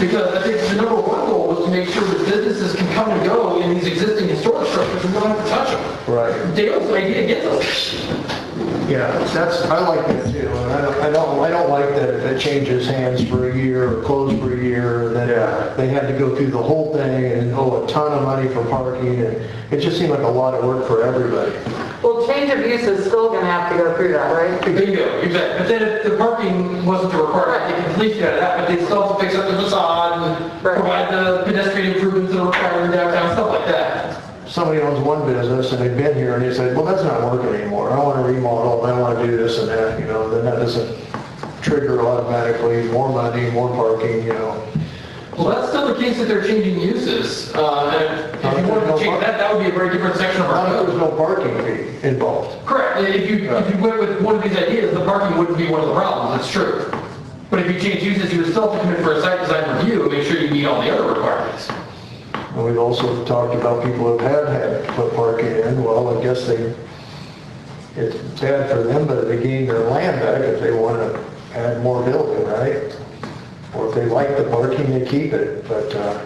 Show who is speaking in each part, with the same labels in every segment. Speaker 1: Because I think the number one goal was to make sure that businesses can come and go in these existing historic structures and don't have to touch them.
Speaker 2: Right.
Speaker 1: Dale's idea gets us.
Speaker 2: Yeah, that's, I like that too, and I don't, I don't, I don't like that it changes hands for a year or closed for a year, and
Speaker 3: Yeah.
Speaker 2: then they had to go through the whole thing and owe a ton of money for parking, and it just seemed like a lot of work for everybody.
Speaker 4: Well, change of use is still gonna have to go through that, right?
Speaker 1: Bingo, exactly. But then if the parking wasn't the requirement, they could leave it at that, but they still have to fix up the facade and
Speaker 4: Right.
Speaker 1: provide the pedestrian improvements that are required in downtown, stuff like that.
Speaker 2: Somebody owns one business, and they've been here, and they said, well, that's not working anymore, I wanna remodel, and I wanna do this and that, you know, then that doesn't trigger automatically more money, more parking, you know.
Speaker 1: Well, that's still the case that they're changing uses. Uh, and if you wanted to change that, that would be a very different section of our
Speaker 2: Not if
Speaker 1: code.
Speaker 2: there's no parking fee involved.
Speaker 1: Correct, if you, if you went with one of these ideas, the parking wouldn't be one of the problems, that's true. But if you change uses, you would still have to come in for a site design review, and make sure you meet all the other requirements.
Speaker 2: And we've also talked about people who have had to put parking in, well, I guess they, it's bad for them, but they gain their land back if they want to add more building, right? Or if they like the parking, they keep it, but, uh,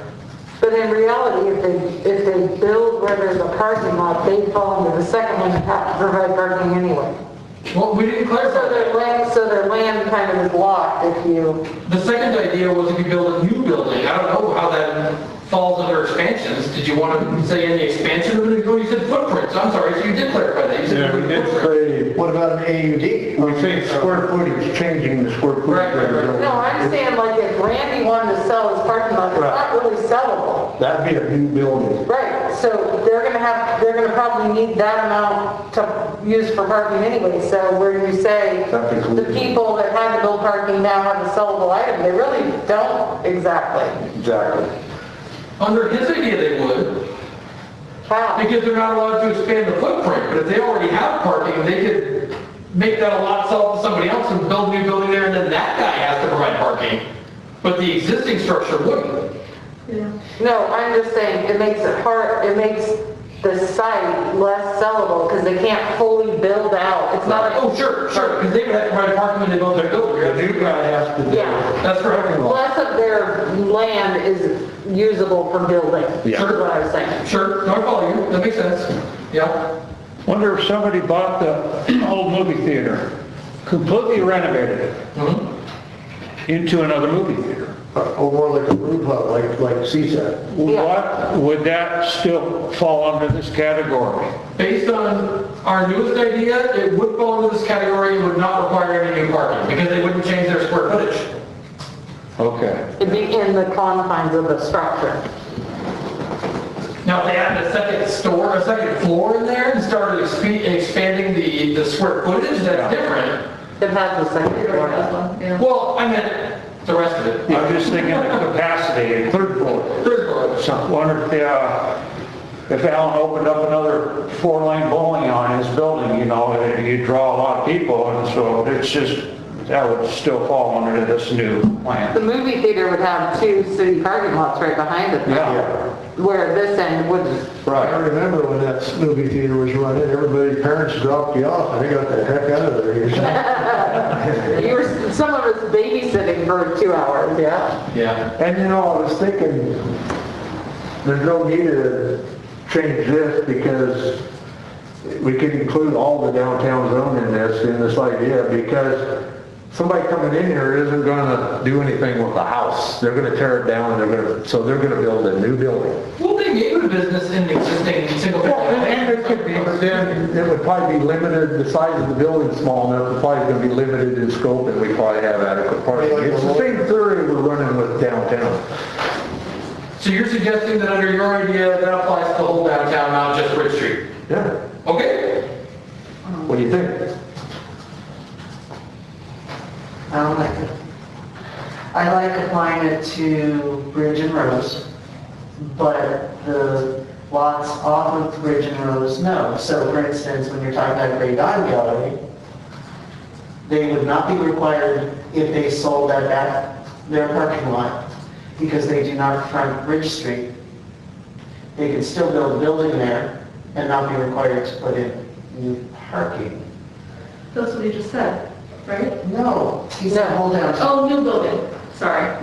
Speaker 4: But in reality, if they, if they build where there's a parking lot, they fall into the second one, and have to provide parking anyway.
Speaker 1: Well, we didn't
Speaker 4: So
Speaker 1: clarify that.
Speaker 4: their land, so their land kind of is locked if you,
Speaker 1: The second idea was if you build a new building, I don't know how that falls under expansions. Did you want to say any expansion of it? No, you said footprints, I'm sorry, so you did clarify that. You said
Speaker 3: Yeah, we did
Speaker 1: footprint.
Speaker 3: say,
Speaker 2: what about an AUD?
Speaker 3: we say square footage, changing the square
Speaker 1: Right, right, right.
Speaker 3: footage.
Speaker 4: no, I'm saying like if Randy wanted to sell his parking lot, it's not really sellable.
Speaker 3: That'd be a new building.
Speaker 4: Right, so they're gonna have, they're gonna probably need that amount to use for parking anyway, so where you say
Speaker 3: That'd be cool.
Speaker 4: the people that had to build parking now have a sellable item, they really don't exactly.
Speaker 3: Exactly.
Speaker 1: Under his idea, they would,
Speaker 4: How?
Speaker 1: because they're not allowed to expand the footprint. But if they already have parking, they could make that a lot, sell it to somebody else and build a new building there, and then that guy has to provide parking. But the existing structure wouldn't.
Speaker 4: No, I'm just saying, it makes it hard, it makes the site less sellable because they can't fully build out. It's not like,
Speaker 1: Oh, sure, sure, because they would have to provide parking when they build their
Speaker 3: The
Speaker 1: building.
Speaker 3: new guy has to do
Speaker 4: Yeah.
Speaker 3: it.
Speaker 1: That's correct.
Speaker 4: less of their land is usable for building, is
Speaker 1: Yeah.
Speaker 4: what I was saying.
Speaker 1: Sure, no, I follow you, that makes sense. Yeah.
Speaker 5: Wonder if somebody bought the old movie theater, completely renovated it into another movie theater.
Speaker 2: Or more like a roof hut, like, like CSAT?
Speaker 4: Yeah.
Speaker 5: What, would that still fall under this category?
Speaker 1: Based on our newest idea, it would fall into this category and would not require any new parking because they wouldn't change their square footage.
Speaker 5: Okay.
Speaker 4: It'd be in the confines of the structure.
Speaker 1: Now, if they added a second store, a second floor in there and started expe- expanding the, the square footage, that's different.
Speaker 4: It has the second floor.
Speaker 1: Well, I meant the rest of it.
Speaker 5: I'm just thinking of capacity in third floor.
Speaker 1: Third floor.
Speaker 5: So wonder if, uh, if Alan opened up another four-lane bowling on his building, you know, and you'd draw a lot of people, and so it's just, that would still fall under this new
Speaker 4: The
Speaker 5: plan.
Speaker 4: movie theater would have two city parking lots right behind it.
Speaker 5: Yeah.
Speaker 4: Where this end wouldn't.
Speaker 2: I remember when that movie theater was running, everybody, parents dropped you off, and they got the heck out of there.
Speaker 4: You were, some of us babysitting for two hours, yeah?
Speaker 1: Yeah.
Speaker 3: And you know, I was thinking, there's no need to change this because we could include all the downtown zone in this, in this idea, because somebody coming in here isn't gonna do anything with the house. They're gonna tear it down, they're gonna, so they're gonna build a new building.
Speaker 1: Well, they may do business in existing single
Speaker 3: And
Speaker 1: family.
Speaker 3: it could be, but then it would probably be limited, the size of the building's small enough, it's probably gonna be limited in scope, and we probably have adequate parking. It's the same theory we're running with downtown.
Speaker 1: So you're suggesting that under your idea, that applies to the whole downtown, not just Bridge Street?
Speaker 3: Yeah,
Speaker 1: Okay?
Speaker 3: what do you think?
Speaker 6: I don't like it. I like applying it to Bridge and Rose, but the lots off of Bridge and Rose, no. So for instance, when you're talking about Great Eye Gallery, they would not be required if they sold that back, their parking lot, because they do not front Bridge Street. They could still build a building there and not be required to put in new parking.
Speaker 7: That's what you just said, right?
Speaker 6: No, he said
Speaker 4: No.
Speaker 6: hold down.
Speaker 7: Oh, new building, sorry, yeah.